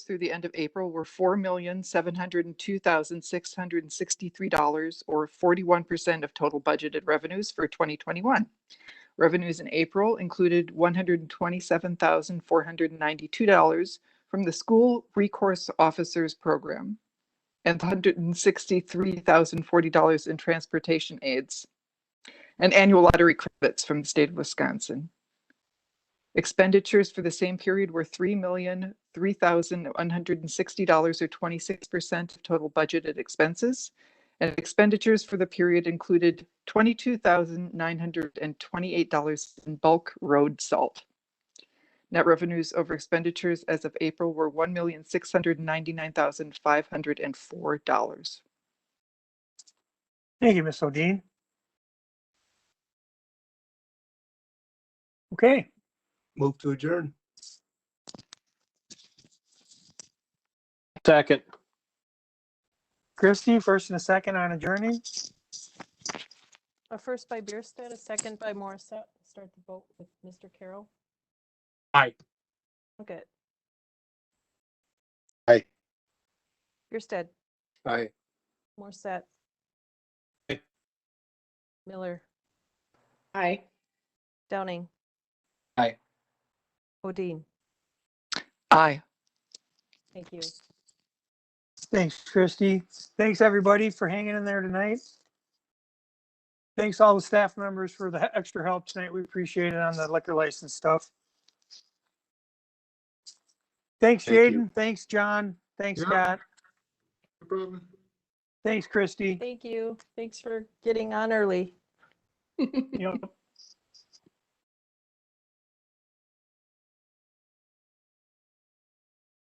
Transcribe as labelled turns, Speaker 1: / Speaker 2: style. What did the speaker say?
Speaker 1: through the end of April were four million, seven hundred and two thousand, six hundred and sixty-three dollars or forty-one percent of total budgeted revenues for twenty twenty-one. Revenues in April included one hundred and twenty-seven thousand, four hundred and ninety-two dollars from the School Recourse Officers Program and hundred and sixty-three thousand, forty dollars in transportation aids and annual lottery credits from the state of Wisconsin. Expenditures for the same period were three million, three thousand, one hundred and sixty dollars or twenty-six percent of total budgeted expenses. And expenditures for the period included twenty-two thousand, nine hundred and twenty-eight dollars in bulk road salt. Net revenues over expenditures as of April were one million, six hundred and ninety-nine thousand, five hundred and four dollars.
Speaker 2: Thank you, Ms. O'Dean. Okay,
Speaker 3: Move to adjourn.
Speaker 4: Second.
Speaker 2: Christie, first and a second on adjourning.
Speaker 5: A first by Bierstadt, a second by Morissette. Start the vote with Mr. Carroll.
Speaker 4: Aye.
Speaker 5: Okay.
Speaker 3: Aye.
Speaker 5: Bierstadt,
Speaker 3: Aye.
Speaker 5: Morissette.
Speaker 4: Aye.
Speaker 5: Miller,
Speaker 6: Aye.
Speaker 5: Downing.
Speaker 3: Aye.
Speaker 5: Odine,
Speaker 1: Aye.
Speaker 5: thank you.
Speaker 2: Thanks, Christie. Thanks, everybody, for hanging in there tonight. Thanks all the staff members for the extra help tonight. We appreciate it on the liquor license stuff. Thanks,
Speaker 3: Thank you.
Speaker 2: Jaden. Thanks, John. Thanks,
Speaker 3: Yeah.
Speaker 2: Scott.
Speaker 3: No problem.
Speaker 2: Thanks, Christie.
Speaker 5: Thank you. Thanks for getting on early.
Speaker 2: Yep.